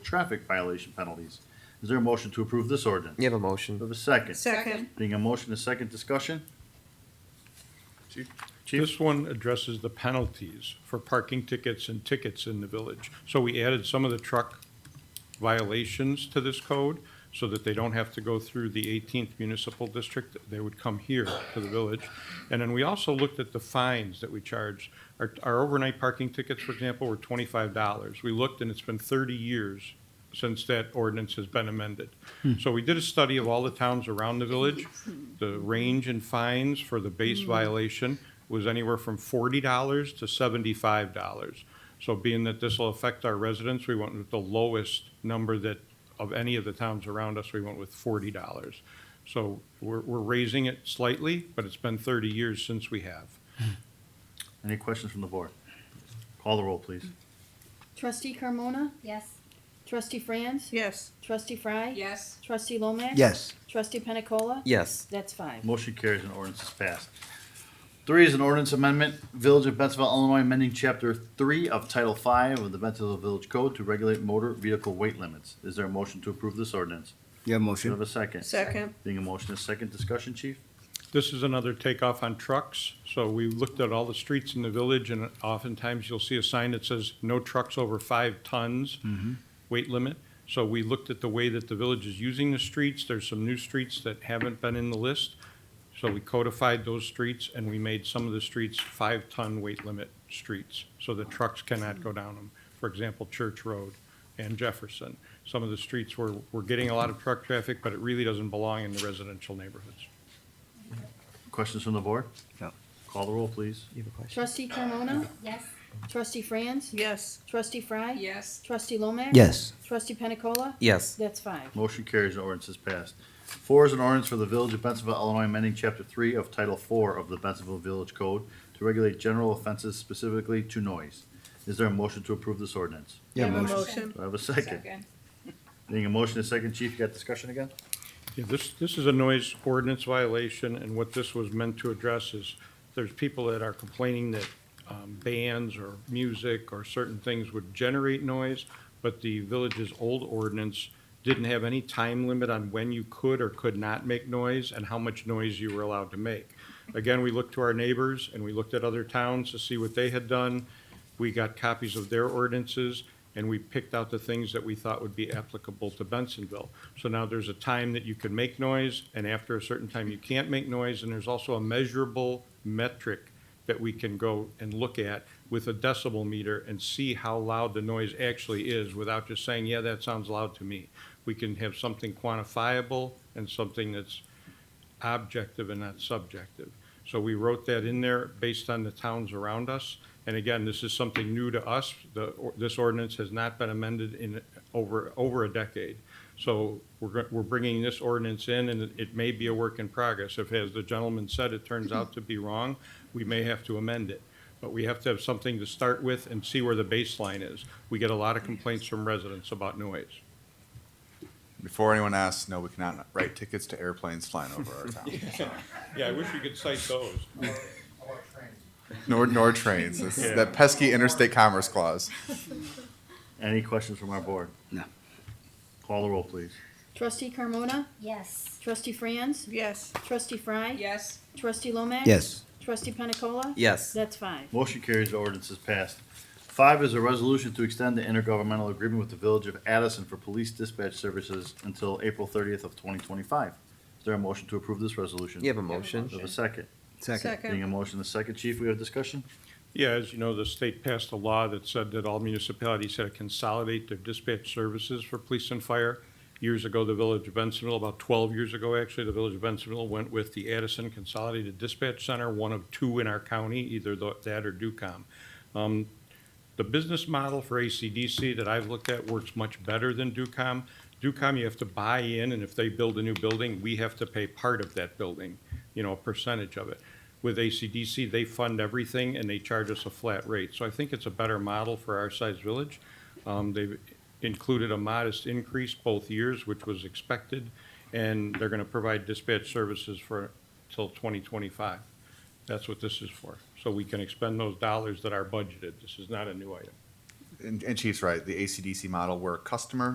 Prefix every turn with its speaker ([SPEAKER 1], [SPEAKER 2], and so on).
[SPEAKER 1] traffic violation penalties. Is there a motion to approve this ordinance?
[SPEAKER 2] You have a
[SPEAKER 1] Do I
[SPEAKER 2] motion.
[SPEAKER 1] have a second?
[SPEAKER 3] Second.
[SPEAKER 1] Being a motion, a second discussion?
[SPEAKER 4] Chief.
[SPEAKER 1] Chief,
[SPEAKER 4] This one addresses the penalties for parking tickets and tickets in the village. So we added some of the truck violations to this code so that they don't have to go through the 18th municipal district. They would come here to the village. And then we also looked at the fines that we charge. Our, our overnight parking tickets, for example, were $25. We looked and it's been 30 years since that ordinance has been amended. So we did a study of all the towns around the village. The range in fines for the base violation was anywhere from forty dollars to seventy-five dollars. So being that this will affect our residents, we went with the lowest number that, of any of the towns around us, we went with forty dollars. So we're, we're raising it slightly, but it's been thirty years since we have.
[SPEAKER 1] any questions from the board? Call the roll, please.
[SPEAKER 5] Trustee Carmona?
[SPEAKER 6] Yes.
[SPEAKER 5] Trustee Franz?
[SPEAKER 3] Yes.
[SPEAKER 5] Trustee Fry?
[SPEAKER 6] Yes.
[SPEAKER 5] Trustee Lomax?
[SPEAKER 2] Yes.
[SPEAKER 5] Trustee Pena Cola?
[SPEAKER 2] Yes.
[SPEAKER 5] That's five.
[SPEAKER 1] Motion carries and ordinance is passed. Three is an ordinance amendment, Village of Bensville, Illinois, amending Chapter Three of Title Five of the Bensville Village Code to regulate motor vehicle weight limits. Is there a motion to approve this ordinance?
[SPEAKER 7] You have a
[SPEAKER 1] Do I have
[SPEAKER 7] motion?
[SPEAKER 1] a second?
[SPEAKER 3] Second.
[SPEAKER 1] Being a motion, a second discussion, chief?
[SPEAKER 4] This is another takeoff on trucks. So we looked at all the streets in the village, and oftentimes you'll see a sign that says, no trucks over five tons weight limit. So we looked at the way that the village is using the streets. There's some new streets that haven't been in the list. So we codified those streets, and we made some of the streets five-ton weight limit streets, so the trucks cannot go down them. For example, Church Road and Jefferson. Some of the streets where we're getting a lot of truck traffic, but it really doesn't belong in the residential neighborhoods.
[SPEAKER 1] Questions from the board?
[SPEAKER 7] No.
[SPEAKER 1] Call the roll, please.
[SPEAKER 2] You have a question.
[SPEAKER 5] Trustee Carmona?
[SPEAKER 6] Yes.
[SPEAKER 5] Trustee Franz?
[SPEAKER 3] Yes.
[SPEAKER 5] Trustee Fry?
[SPEAKER 6] Yes.
[SPEAKER 5] Trustee Lomax?
[SPEAKER 7] Yes.
[SPEAKER 5] Trustee Pena Cola?
[SPEAKER 2] Yes.
[SPEAKER 5] That's five.
[SPEAKER 1] Motion carries and ordinance is passed. Four is an ordinance for the Village of Bensonville, Illinois, amending Chapter Three of Title Four of the Bensonville Village Code to regulate general offenses specifically to noise. Is there a motion to approve this ordinance?
[SPEAKER 7] You have a motion?
[SPEAKER 3] Motion.
[SPEAKER 1] Do I have a second? Being a motion, a second, chief, you got discussion again?
[SPEAKER 4] Yeah, this, this is a noise ordinance violation, and what this was meant to address is, there's people that are complaining that um, bands or music or certain things would generate noise, but the village's old ordinance didn't have any time limit on when you could or could not make noise and how much noise you were allowed to make. Again, we looked to our neighbors and we looked at other towns to see what they had done. We got copies of their ordinances, and we picked out the things that we thought would be applicable to Bensonville. So now there's a time that you can make noise, and after a certain time, you can't make noise, and there's also a measurable metric that we can go and look at with a decibel meter and see how loud the noise actually is without just saying, yeah, that sounds loud to me. We can have something quantifiable and something that's objective and not subjective. So we wrote that in there based on the towns around us. And again, this is something new to us. The, or- this ordinance has not been amended in over, over a decade. So we're, go- we're bringing this ordinance in and it- it may be a work in progress. If, as the gentleman said, it turns out to be wrong, we may have to amend it. But we have to have something to start with and see where the baseline is. We get a lot of complaints from residents about noise.
[SPEAKER 8] Before anyone asks, no, we cannot write tickets to airplanes flying over our town.
[SPEAKER 4] Yeah, I wish we could cite those.
[SPEAKER 8] Nor, nor trains. It's that pesky interstate commerce clause.
[SPEAKER 1] Any questions from our board?
[SPEAKER 7] No.
[SPEAKER 1] Call the roll, please.
[SPEAKER 5] Trustee Carmona?
[SPEAKER 6] Yes.
[SPEAKER 5] Trustee Franz?
[SPEAKER 3] Yes.
[SPEAKER 5] Trustee Fry?
[SPEAKER 6] Yes.
[SPEAKER 5] Trustee Lomax?
[SPEAKER 7] Yes.
[SPEAKER 5] Trustee Pena Cola?
[SPEAKER 2] Yes.
[SPEAKER 5] That's five.
[SPEAKER 1] Motion carries, the ordinance is passed. Five is a resolution to extend the intergovernmental agreement with the Village of Addison for police dispatch services until April thirtieth of twenty twenty-five. Is there a motion to approve this resolution?
[SPEAKER 2] You have a
[SPEAKER 1] Do I have
[SPEAKER 2] motion.
[SPEAKER 1] a second?
[SPEAKER 7] Second.
[SPEAKER 1] Being a motion, a second, chief, we have discussion?
[SPEAKER 4] Yeah, as you know, the state passed a law that said that all municipalities had to consolidate their dispatch services for police and fire. Years ago, the village of Bensonville, about twelve years ago, actually, the village of Bensonville went with the Addison Consolidated Dispatch Center, one of two in our county, either tho- that or Ducom. Um, the business model for ACDC that I've looked at works much better than Ducom. Ducom, you have to buy in, and if they build a new building, we have to pay part of that building, you know, a percentage of it. With ACDC, they fund everything and they charge us a flat rate. So I think it's a better model for our size village. Um, they've included a modest increase both years, which was expected, and they're gonna provide dispatch services for, till twenty twenty-five. That's what this is for, so we can expend those dollars that are budgeted. This is not a new item.
[SPEAKER 8] And, and Chief's right, the ACDC model where a customer